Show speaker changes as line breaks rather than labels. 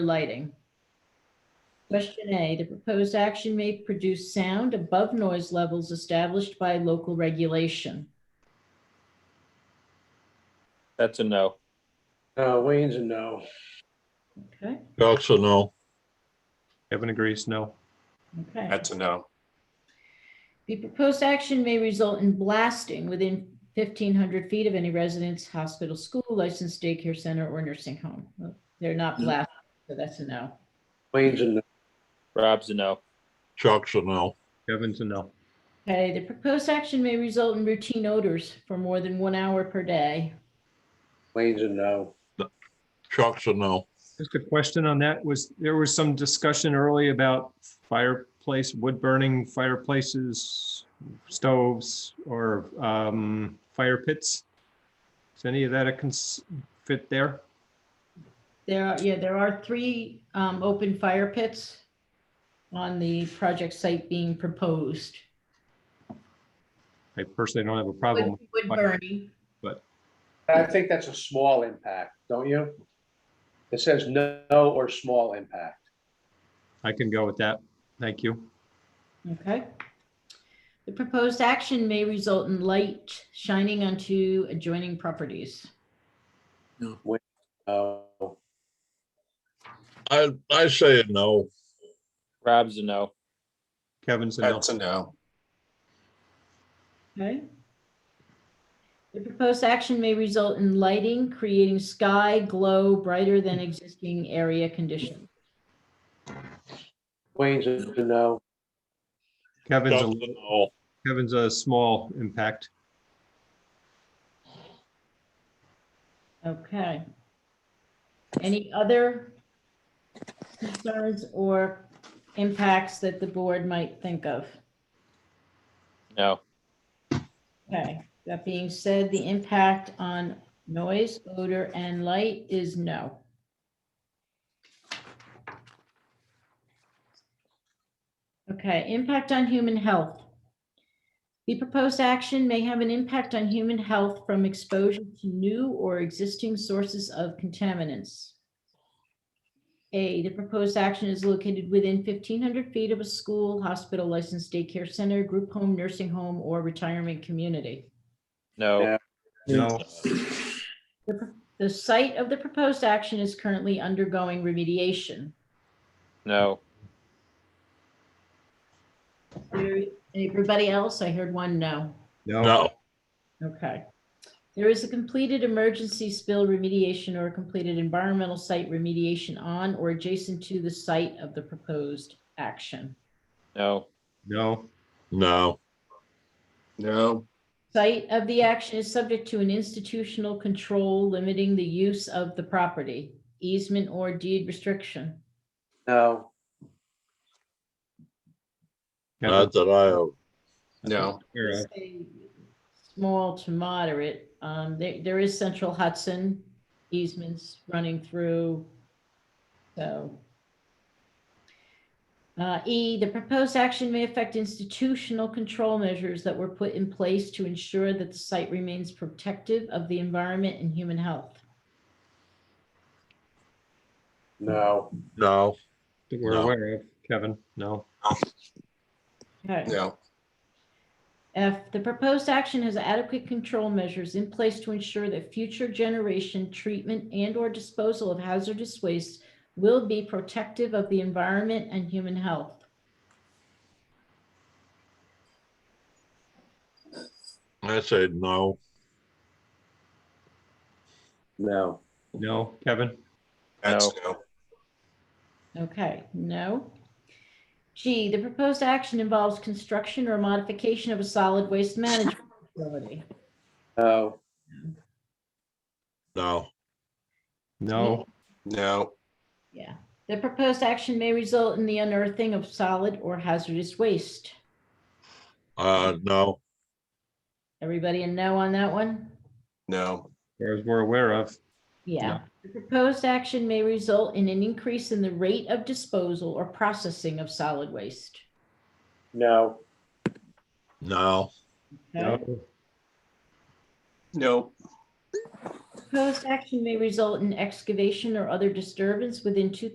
lighting. Question A, the proposed action may produce sound above noise levels established by local regulation.
That's a no.
Uh, Wayne's a no.
Okay,
Also, no.
Kevin agrees, no.
okay.
That's a no.
The proposed action may result in blasting within fifteen hundred feet of any residence, hospital, school, licensed daycare center, or nursing home. Well, They're not blasting, so that's a no.
Wayne's a no.
Rob's a no.
Chuck's a no.
Kevin's a no.
Okay, the proposed action may result in routine odors for more than one hour per day.
Wayne's a no.
Chuck's a no.
Just a question on that was, there was some discussion early about fireplace, wood burning fireplaces, stoves, or um, fire pits. Is any of that a cons- fit there?
There are, yeah, there are three um, open fire pits on the project site being proposed.
I personally don't have a
Wood
problem.
wood burning,
I think that's a small impact, don't you? It says no or small impact.
I can go with that. Thank you.
okay? The proposed action may result in light shining onto adjoining properties.
No.
I, I say a no.
Rob's a no.
Kevin's a no.
That's a no.
Okay. The proposed action may result in lighting, creating sky glow brighter than existing area conditions.
Wayne's a no.
Kevin's,
Chuck's
a
a no.
Kevin's a small impact.
Okay. Any other concerns or impacts that the board might think of?
No.
Okay, that being said, the impact on noise, odor, and light is no. Okay, impact on human health. The proposed action may have an impact on human health from exposure to new or existing sources of contaminants. A, the proposed action is located within fifteen hundred feet of a school, hospital, licensed daycare center, group home, nursing home, or retirement community.
No.
Yeah.
No,
The pr- The site of the proposed action is currently undergoing remediation.
No.
There- Everybody else, I heard one no.
no,
No.
Okay. There is a completed emergency spill remediation or a completed environmental site remediation on or adjacent to the site of the proposed action.
No.
no,
No.
No,
Site of the action is subject to an institutional control limiting the use of the property, easement or deed restriction.
No.
Kevin,
Not that I have.
Uh, no,
you're a-
say Small to moderate. Um, there, there is Central Hudson easements running through, so. Uh, E, the proposed action may affect institutional control measures that were put in place to ensure that the site remains protective of the environment and human health.
No.
No.
that we're
No.
aware of. Kevin, no.
Okay.
no,
F, the proposed action has adequate control measures in place to ensure that future generation treatment and/or disposal of hazardous waste will be protective of the environment and human health.
I say no.
No.
No, Kevin,
that's
No.
no.
Okay, no. G, the proposed action involves construction or modification of a solid waste management facility.
No.
No.
no,
No,
Yeah. The proposed action may result in the unearthing of solid or hazardous waste.
Uh, no.
Everybody a no on that one?
no,
as we're aware of.
Yeah, the proposed action may result in an increase in the rate of disposal or processing of solid waste.
No.
No.
Okay?
No,
no,
Proposed action may result in excavation or other disturbance within two